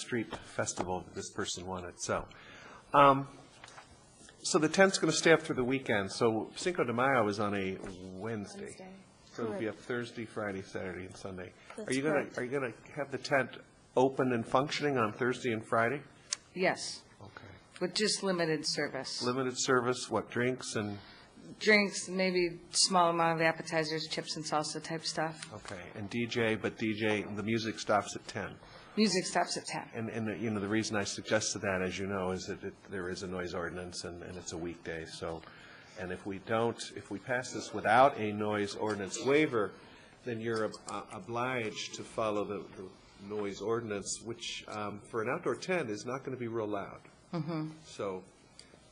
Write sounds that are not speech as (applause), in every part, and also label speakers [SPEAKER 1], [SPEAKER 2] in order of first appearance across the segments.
[SPEAKER 1] street festival that this person wanted, so. Um, So the tent's going to stay up through the weekend, so Cinco de Mayo is on a Wednesday.
[SPEAKER 2] Wednesday.
[SPEAKER 1] So it'll be up
[SPEAKER 2] Correct.
[SPEAKER 1] Thursday, Friday, Saturday, and Sunday. Are
[SPEAKER 2] That's
[SPEAKER 1] you going
[SPEAKER 2] correct.
[SPEAKER 1] to, are you going to have the tent open and functioning on Thursday and Friday?
[SPEAKER 3] Yes,
[SPEAKER 1] Okay.
[SPEAKER 3] with just limited service.
[SPEAKER 1] Limited service, what, drinks and,
[SPEAKER 3] Drinks, maybe small amount of appetizers, chips and salsa type stuff.
[SPEAKER 1] okay, and DJ, but DJ, the music stops at 10.
[SPEAKER 3] Music stops at 10.
[SPEAKER 1] And, and, you know, the reason I suggested that, as you know, is that it, there is a noise ordinance and, and it's a weekday, so, and if we don't, if we pass this without a noise ordinance waiver, then you're ob- uh, obliged to follow the, the noise ordinance, which, um, for an outdoor tent is not gonna be real loud. So,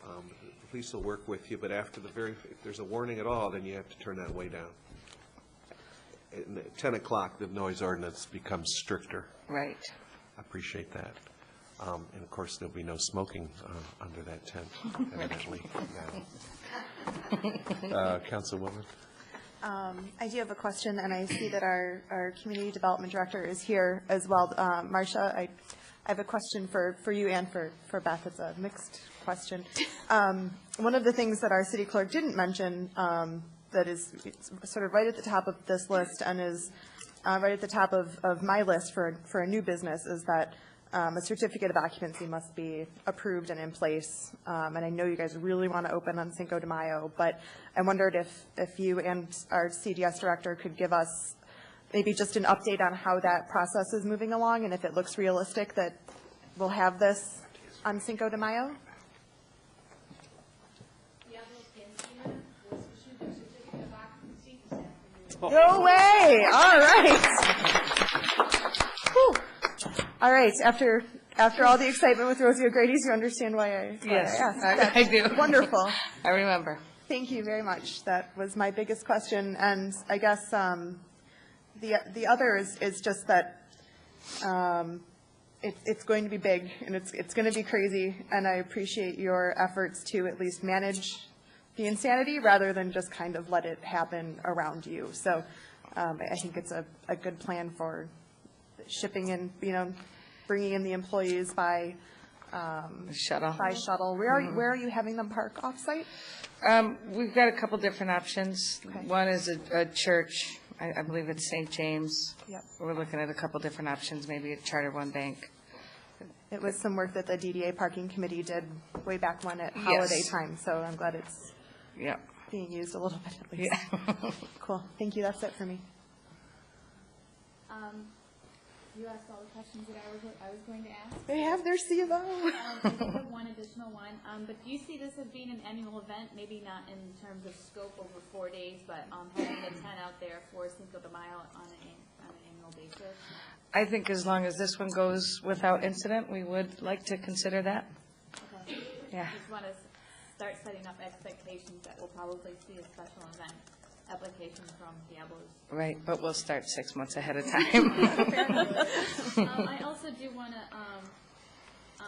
[SPEAKER 1] um, the police will work with you, but after the very, if there's a warning at all, then you have to turn that way down. And at ten o'clock, the noise ordinance becomes stricter.
[SPEAKER 3] Right.
[SPEAKER 1] I appreciate that. Um, And of course, there'll be no smoking uh, under that tent, evidently. now. Uh, Councilwoman?
[SPEAKER 4] I do have a question, and I see that our, our Community Development Director is here as well. Um, Marcia, I, I have a question for, for you and for, for Beth. It's a mixed question. Um, One of the things that our city clerk didn't mention um, that is it's sort of right at the top of this list and is uh, right at the top of, of my list for, for a new business is that um, a certificate of occupancy must be approved and in place. Um, And I know you guys really want to open on Cinco de Mayo, but I wondered if, if you and our CDS director could give us maybe just an update on how that process is moving along and if it looks realistic that we'll have this on Cinco de Mayo?
[SPEAKER 5] Diablo Cantina was issued a certificate of occupancy this afternoon.
[SPEAKER 4] No way! All right. Whew. All right, after, after all the excitement with Rosie O'Grady's, you understand why I why I
[SPEAKER 3] Yes,
[SPEAKER 4] asked.
[SPEAKER 3] I I do. (laughs)
[SPEAKER 4] That's Wonderful.
[SPEAKER 3] I remember.
[SPEAKER 4] Thank you very much. That was my biggest question, and I guess um, the the other is is just that um, it- it's going to be big, and it's it's going to be crazy, and I appreciate your efforts to at least manage the insanity rather than just kind of let it happen around you. So um, I think it's a a good plan for shipping in, you know, bringing in the employees by um,
[SPEAKER 3] Shut off.
[SPEAKER 4] by shuttle. Where are where are you having them park offsite?
[SPEAKER 3] Um, We've got a couple different options.
[SPEAKER 4] Okay.
[SPEAKER 3] One is a, a church, I, I believe it's St. James.
[SPEAKER 4] Yep.
[SPEAKER 3] We're looking at a couple different options, maybe a charter one bank.
[SPEAKER 4] It was some work that the DDA Parking Committee did way back when at
[SPEAKER 3] Yes.
[SPEAKER 4] holiday time, so I'm glad it's
[SPEAKER 3] Yeah.
[SPEAKER 4] being used a little bit at least. Cool, thank you, that's it for me.
[SPEAKER 5] Um, you asked all the questions that I was, I was going to ask.
[SPEAKER 4] They have their CVO.
[SPEAKER 5] Um, I do have one additional one, um, but do you see this as being an annual event? Maybe not in terms of scope over four days, but, um, having a tent out there for Cinco de Mayo on an, an- on an annual basis?
[SPEAKER 3] (laughs) I think as long as this one goes without incident, we would like to consider that.
[SPEAKER 5] Okay.
[SPEAKER 3] Yeah.
[SPEAKER 5] Just wanna s- start setting up expectations that we'll probably see a special event application from Diablo's
[SPEAKER 3] Right, but we'll start six months ahead of time.
[SPEAKER 5] Um, I also do want to, um,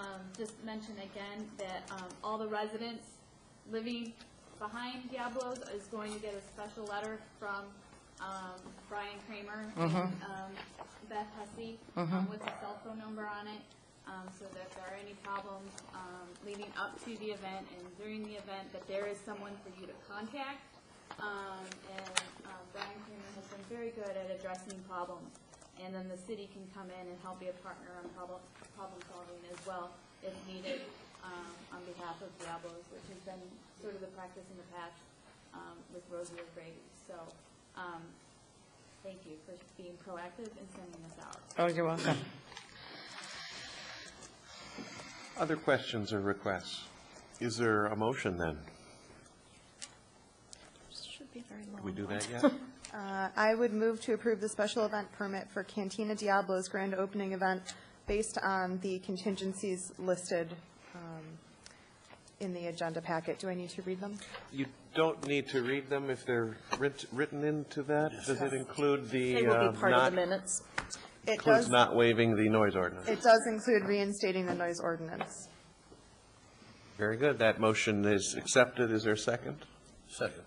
[SPEAKER 5] um, just mention again that, um, all the residents living behind Diablo's is going to get a special letter from, um, Brian Kramer and, um, Beth Hussey, um, with a cell phone number on it, um, so that if there are any problems, um, leading up to the event and during the event, that there is someone for you to contact. Um, and, um, Brian Kramer has been very good at addressing problems, and then the city can come in and help be a partner on problem, problem solving as well if needed, um, on behalf of Diablo's, which has been sort of the practice in the past, um, with Rosie O'Grady. So, um, thank you for being proactive and sending this out.
[SPEAKER 3] Oh, you're welcome.
[SPEAKER 1] Other questions or requests? Is there a motion, then?
[SPEAKER 4] Should be very
[SPEAKER 1] Did we do that yet?
[SPEAKER 4] Uh, I would move to approve the special event permit for Cantina Diablo's grand opening event based on the contingencies listed um, in the agenda packet. Do I need to read them?
[SPEAKER 1] You don't need to read them if they're writ- written into that. Does it include the,
[SPEAKER 6] They will
[SPEAKER 1] uh,
[SPEAKER 6] be part of the
[SPEAKER 1] not,
[SPEAKER 6] minutes.
[SPEAKER 4] It
[SPEAKER 1] includes
[SPEAKER 4] does,
[SPEAKER 1] not waiving the noise ordinance?
[SPEAKER 4] it does include reinstating the noise ordinance.
[SPEAKER 1] Very good. That motion is accepted. Is there a second? Second.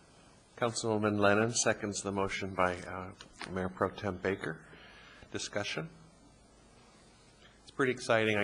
[SPEAKER 1] Councilwoman Lennon seconds the motion by uh, Mayor Pro Tem Baker. Discussion? It's pretty exciting. I